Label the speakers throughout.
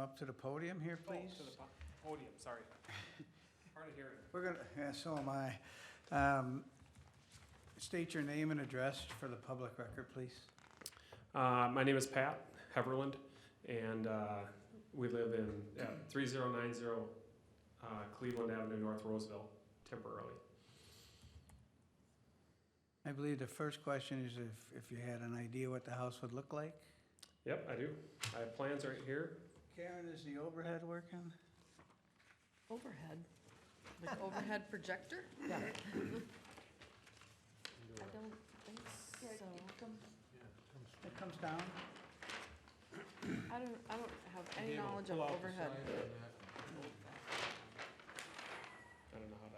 Speaker 1: up to the podium here,
Speaker 2: Oh,
Speaker 1: please?
Speaker 2: to the po- podium, sorry. Hard of hearing.
Speaker 1: We're gonna, yeah, so am I. Um, State your name and address for the public record, please.
Speaker 2: Uh, my name is Pat Heverland, and uh, we live in uh, 3090 uh, Cleveland Avenue, North Roseville, temporarily.
Speaker 1: I believe the first question is if, if you had an idea what the house would look like?
Speaker 2: Yep, I do. I have plans right here.
Speaker 1: Karen, is the overhead working?
Speaker 3: Overhead, like overhead projector?
Speaker 1: Yeah.
Speaker 3: I don't think so.
Speaker 1: It comes down?
Speaker 3: I don't, I don't have any knowledge of overhead.
Speaker 2: I don't know how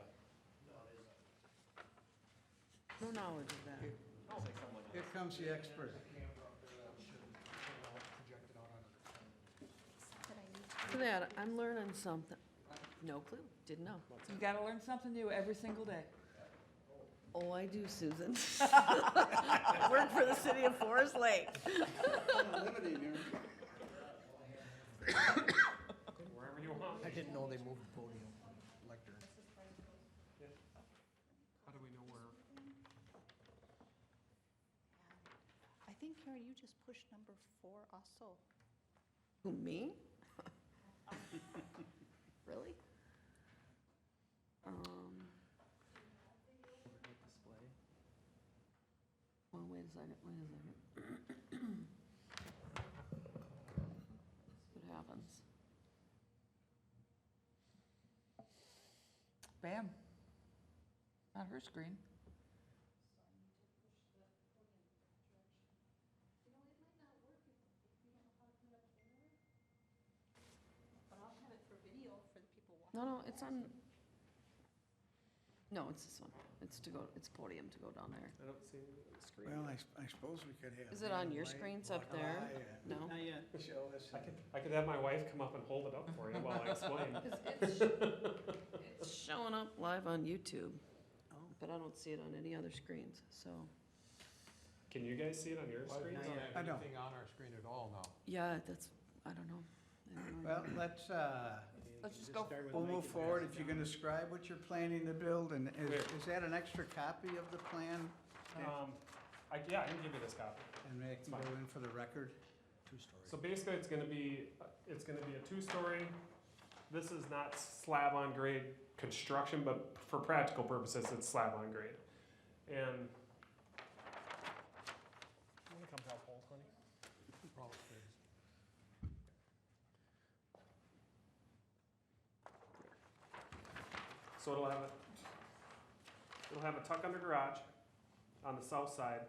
Speaker 2: to.
Speaker 3: No knowledge of that.
Speaker 1: Here comes the expert.
Speaker 3: Look at that, I'm learning something. No clue, didn't know.
Speaker 4: You gotta learn something new every single day.
Speaker 3: Oh, I do, Susan. Work for the city of Forest Lake.
Speaker 2: Wherever you want.
Speaker 5: I didn't know they moved the podium, lectern.
Speaker 2: How do we know where?
Speaker 6: I think, Karen, you just pushed number four also.
Speaker 3: Who, me? Really? Um. Well, wait a second, wait a second. What happens?
Speaker 4: Bam. On her screen.
Speaker 6: But I'll have it for video for the people watching.
Speaker 3: No, no, it's on, no, it's this one. It's to go, it's podium to go down there.
Speaker 2: I don't see anything on the screen.
Speaker 1: Well, I s- I suppose we could have.
Speaker 3: Is it on your screens up there? No?
Speaker 1: Not yet. Show us.
Speaker 2: I could, I could have my wife come up and hold it up for you while I explain.
Speaker 3: It's it's showing up live on YouTube, but I don't see it on any other screens, so.
Speaker 2: Can you guys see it on your
Speaker 5: We
Speaker 2: screen?
Speaker 5: don't have
Speaker 1: I don't.
Speaker 5: anything on our screen at all now.
Speaker 3: Yeah, that's, I don't know. I don't know.
Speaker 1: Well, let's, uh,
Speaker 4: Let's just go.
Speaker 1: we'll move forward. If you can describe what you're planning to build, and is,
Speaker 2: Where?
Speaker 1: is that an extra copy of the plan?
Speaker 2: Um, I, yeah, I can give you this copy.
Speaker 1: And they can go in for the record?
Speaker 5: Two stories.
Speaker 2: So basically, it's gonna be, it's gonna be a two-story. This is not slab on grade construction, but for practical purposes, it's slab on grade. And. I'm gonna come help hold, honey.
Speaker 5: Probably is.
Speaker 2: So it'll have a, it'll have a tuck under garage on the south side,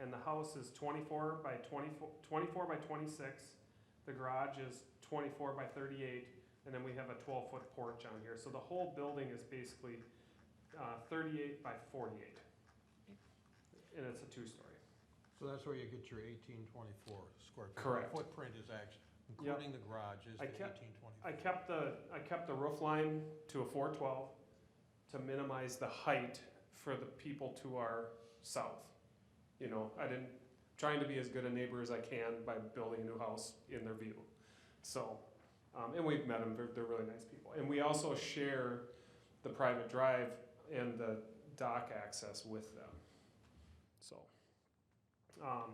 Speaker 2: and the house is twenty-four by 24 24 by twenty-six. The garage is twenty-four by thirty-eight, and then we have a twelve-foot porch on here, so the whole building is basically, uh, thirty-eight by forty-eight. And it's a two-story.
Speaker 5: So that's where you get your eighteen twenty-four square feet.
Speaker 2: Correct.
Speaker 5: Footprint is actually, including the garage, is the
Speaker 2: I kept-
Speaker 5: eighteen twenty-four.
Speaker 2: I kept the, I kept the roof line to a four twelve to minimize the height for the people to our south. You know, I didn't, trying to be as good a neighbor as I can by building a new house in their view. So, um, and we've met them, they're, they're really nice people. And we also share the private drive and the dock access with them, so. Um,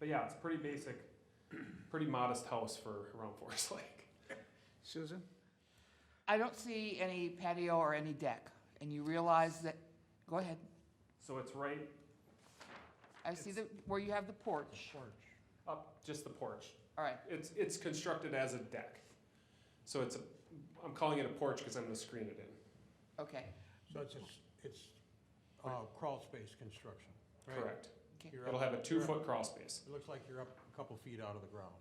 Speaker 2: but yeah, it's a pretty basic, pretty modest house for around Forest Lake.
Speaker 1: Susan?
Speaker 4: I don't see any patio or any deck, and you realize that, go ahead.
Speaker 2: So it's right
Speaker 4: I see the, where you have the porch.
Speaker 5: Porch.
Speaker 2: up just the porch.
Speaker 4: All right,
Speaker 2: It's it's constructed as a deck. So it's a I'm calling it a porch because I'm gonna screen it in.
Speaker 4: okay.
Speaker 5: So it's, it's, it's, uh, crawl space construction, right?
Speaker 2: Correct.
Speaker 4: okay.
Speaker 5: You're
Speaker 2: It'll
Speaker 5: up-
Speaker 2: have a two
Speaker 5: you're up-
Speaker 2: foot crawl space.
Speaker 5: It looks like you're up a couple feet out of the ground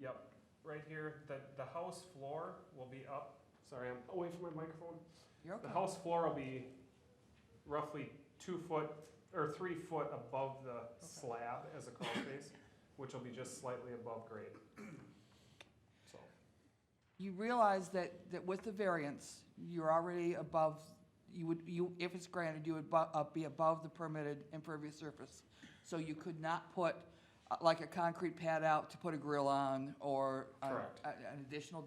Speaker 5: there.
Speaker 2: Yep. Right here, the the house floor will be up. Sorry, I'm away from my microphone.
Speaker 4: You're
Speaker 2: The
Speaker 4: okay.
Speaker 2: house floor will be roughly two foot or three foot above the slab as a crawl space, which will be just slightly above grade. So
Speaker 4: You realize that, that with the variance, you're already above, you would, you, if it's granted, you would bu- uh, be above the permitted impervious surface. So you could not put, uh, like, a concrete pad out to put a grill on, or a-
Speaker 2: Correct.
Speaker 4: a- an additional